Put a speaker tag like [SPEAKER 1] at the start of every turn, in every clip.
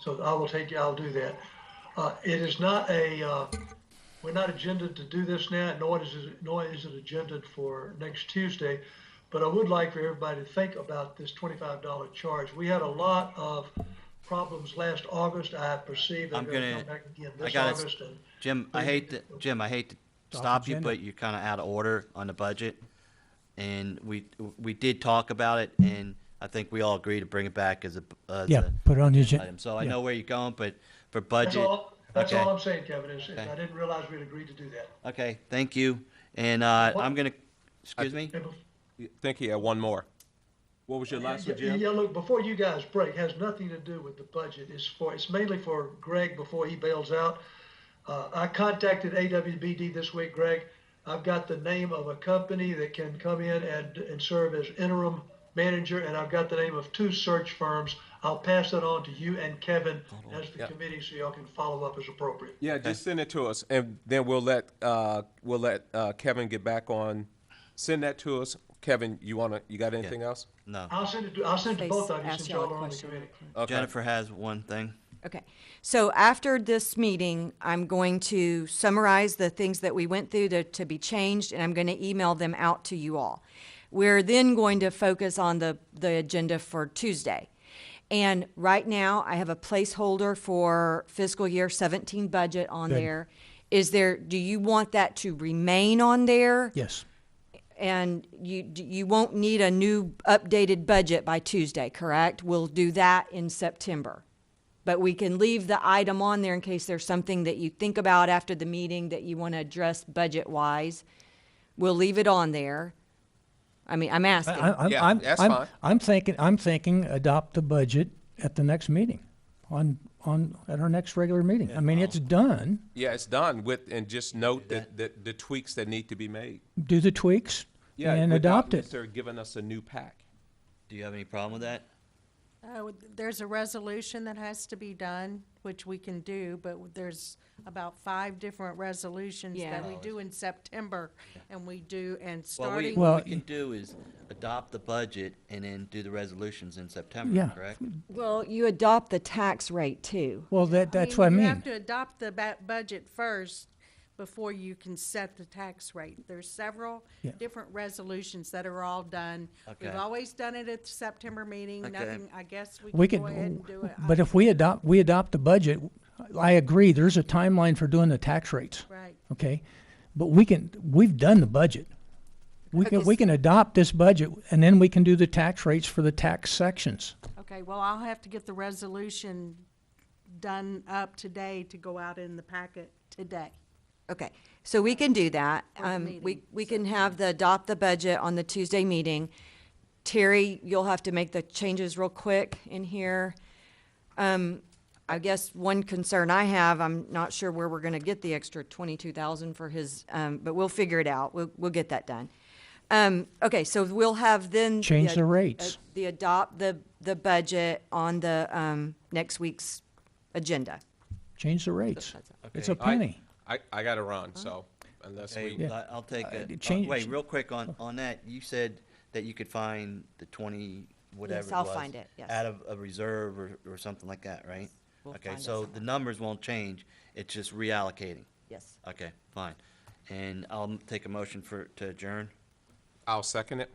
[SPEAKER 1] So I will take, I'll do that. Uh, It is not a, uh, we're not agendaed to do this now, nor is it, nor is it agendaed for next Tuesday. But I would like for everybody to think about this twenty-five dollar charge. We had a lot of problems last August. I perceive they're
[SPEAKER 2] I'm
[SPEAKER 1] gonna
[SPEAKER 2] gonna-
[SPEAKER 1] come back again
[SPEAKER 2] I
[SPEAKER 1] this
[SPEAKER 2] gotta s-
[SPEAKER 1] August. and-
[SPEAKER 2] Jim, I hate to, Jim, I hate to
[SPEAKER 3] Off
[SPEAKER 2] stop you,
[SPEAKER 3] agenda.
[SPEAKER 2] but you're kind of out of order on the budget. And we, we did talk about it and I think we all agree to bring it back as a, as
[SPEAKER 3] Yeah,
[SPEAKER 2] a
[SPEAKER 3] put it on the
[SPEAKER 2] item.
[SPEAKER 3] agenda.
[SPEAKER 2] So I
[SPEAKER 3] yeah.
[SPEAKER 2] know where you're going, but for
[SPEAKER 1] That's
[SPEAKER 2] budget,
[SPEAKER 1] all, that's
[SPEAKER 2] okay.
[SPEAKER 1] all I'm saying, Kevin, is is
[SPEAKER 2] Okay.
[SPEAKER 1] I didn't realize we'd agreed to do that.
[SPEAKER 2] okay, thank you. And, uh,
[SPEAKER 1] What-
[SPEAKER 2] I'm gonna, excuse me?
[SPEAKER 1] And bef-
[SPEAKER 4] Think he had one more. What was your last one,
[SPEAKER 1] Yeah,
[SPEAKER 4] Jim?
[SPEAKER 1] yeah, look, before you guys break, has nothing to do with the budget. It's for, it's mainly for Greg before he bails out. Uh, I contacted AWBD this week, Greg. I've got the name of a company that can come in and, and serve as interim manager, and I've got the name of two search firms. I'll pass that on to you and Kevin as the
[SPEAKER 4] Yeah.
[SPEAKER 1] committee, so y'all can follow up as appropriate.
[SPEAKER 4] Yeah, just send it to us, and then we'll let, uh, we'll let uh, Kevin get back on. Send that to us. Kevin, you wanna, you got anything else?
[SPEAKER 2] No.
[SPEAKER 1] I'll send it to, I'll send it to both of you
[SPEAKER 5] Ask
[SPEAKER 1] since
[SPEAKER 5] y'all a
[SPEAKER 1] y'all are on the
[SPEAKER 5] question real
[SPEAKER 1] committee.
[SPEAKER 5] quick.
[SPEAKER 4] Okay.
[SPEAKER 2] Jennifer has one thing.
[SPEAKER 5] Okay, so after this meeting, I'm going to summarize the things that we went through to, to be changed, and I'm going to email them out to you all. We're then going to focus on the, the agenda for Tuesday. And right now, I have a placeholder for fiscal year seventeen budget on
[SPEAKER 3] Good.
[SPEAKER 5] there. Is there, do you want that to remain on there?
[SPEAKER 3] Yes,
[SPEAKER 5] And you, d- you won't need a new updated budget by Tuesday, correct? We'll do that in September. But we can leave the item on there in case there's something that you think about after the meeting that you want to address budget-wise. We'll leave it on there. I mean, I'm
[SPEAKER 3] I,
[SPEAKER 5] asking.
[SPEAKER 3] I- I'm,
[SPEAKER 4] Yeah,
[SPEAKER 3] I'm,
[SPEAKER 4] that's
[SPEAKER 3] I'm,
[SPEAKER 4] fine.
[SPEAKER 3] I'm thinking, I'm thinking adopt the budget at the next meeting, on, on, at our next regular meeting. I mean, it's done.
[SPEAKER 4] Yeah, it's done with, and just note that, that the tweaks that need to be made.
[SPEAKER 3] Do the tweaks
[SPEAKER 4] Yeah,
[SPEAKER 3] and
[SPEAKER 4] without
[SPEAKER 3] adopt it.
[SPEAKER 4] necessarily giving us a new pack.
[SPEAKER 2] Do you have any problem with that?
[SPEAKER 6] Uh, with- There's a resolution that has to be done, which we can do, but there's about five different resolutions that
[SPEAKER 5] Yeah.
[SPEAKER 6] we do in September, and we do, and
[SPEAKER 2] What we,
[SPEAKER 6] starting.
[SPEAKER 3] Well,
[SPEAKER 2] what we
[SPEAKER 3] y-
[SPEAKER 2] can do is adopt the budget and then do the resolutions in September,
[SPEAKER 3] Yeah.
[SPEAKER 2] correct?
[SPEAKER 5] Well, you adopt the tax rate too.
[SPEAKER 3] Well, that, that's what I
[SPEAKER 6] You
[SPEAKER 3] mean.
[SPEAKER 6] have to adopt the ba- budget first before you can set the tax rate. There's several
[SPEAKER 3] Yeah.
[SPEAKER 6] different resolutions that are all done. We've
[SPEAKER 2] Okay.
[SPEAKER 6] always done it at the September meeting,
[SPEAKER 2] Okay.
[SPEAKER 6] nothing, I guess
[SPEAKER 3] We
[SPEAKER 6] we can go ahead
[SPEAKER 3] can,
[SPEAKER 6] and do it. I-
[SPEAKER 3] but if we adopt, we adopt the budget, I agree, there's a timeline for doing the tax rates.
[SPEAKER 6] Right.
[SPEAKER 3] Okay, but we can, we've done the budget. We can, we can adopt this budget and then we can do the tax rates for the tax sections.
[SPEAKER 6] Okay, well, I'll have to get the resolution done up today to go out in the packet today.
[SPEAKER 5] Okay, so we can do that.
[SPEAKER 6] the
[SPEAKER 5] Um, we,
[SPEAKER 6] meeting,
[SPEAKER 5] we can have the, adopt the budget on the Tuesday meeting. Terry, you'll have to make the changes real quick in here. Um, I guess one concern I have, I'm not sure where we're gonna get the extra twenty-two thousand for his, um, but we'll figure it out. We'll, we'll get that done. Um, okay, so we'll have then.
[SPEAKER 3] Change the
[SPEAKER 5] ad-
[SPEAKER 3] rates.
[SPEAKER 5] uh, The adopt the, the budget on the, um, next week's agenda.
[SPEAKER 3] Change the rates. It's a
[SPEAKER 2] Okay.
[SPEAKER 4] I-
[SPEAKER 3] penny.
[SPEAKER 4] I, I gotta run, so unless
[SPEAKER 2] Okay,
[SPEAKER 4] we,
[SPEAKER 2] I- I'll take
[SPEAKER 3] Uh,
[SPEAKER 2] a, uh,
[SPEAKER 3] change-
[SPEAKER 2] wait, real quick on, on that, you said that you could find the twenty, whatever it was.
[SPEAKER 5] I'll find it, yes.
[SPEAKER 2] Out of a reserve or, or something like that, right?
[SPEAKER 5] We'll
[SPEAKER 2] Okay,
[SPEAKER 5] find it
[SPEAKER 2] so the
[SPEAKER 5] somewhere.
[SPEAKER 2] numbers won't change, it's just reallocating.
[SPEAKER 5] Yes.
[SPEAKER 2] Okay, fine. And I'll take a motion for, to adjourn,
[SPEAKER 4] I'll second it.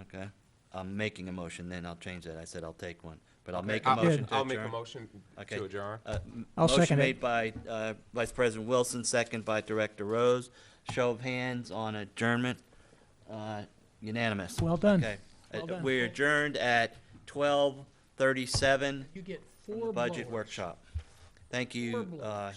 [SPEAKER 2] okay? I'm making a motion, then I'll change that, I said I'll take one, but I'll
[SPEAKER 4] Okay,
[SPEAKER 2] make a
[SPEAKER 4] I'll-
[SPEAKER 2] motion to
[SPEAKER 4] I'll make a
[SPEAKER 2] adjourn.
[SPEAKER 4] motion
[SPEAKER 2] Okay.
[SPEAKER 4] to adjourn.
[SPEAKER 2] Uh, m-
[SPEAKER 3] I'll
[SPEAKER 2] Motion
[SPEAKER 3] second it.
[SPEAKER 2] made by uh, Vice President Wilson, second by Director Rose. Show of hands on adjournment, Uh, unanimous.
[SPEAKER 3] Well done.
[SPEAKER 2] Okay. Uh,
[SPEAKER 3] Well done.
[SPEAKER 2] We adjourned at 12:37
[SPEAKER 3] You get
[SPEAKER 2] from the budget workshop. Thank you, uh,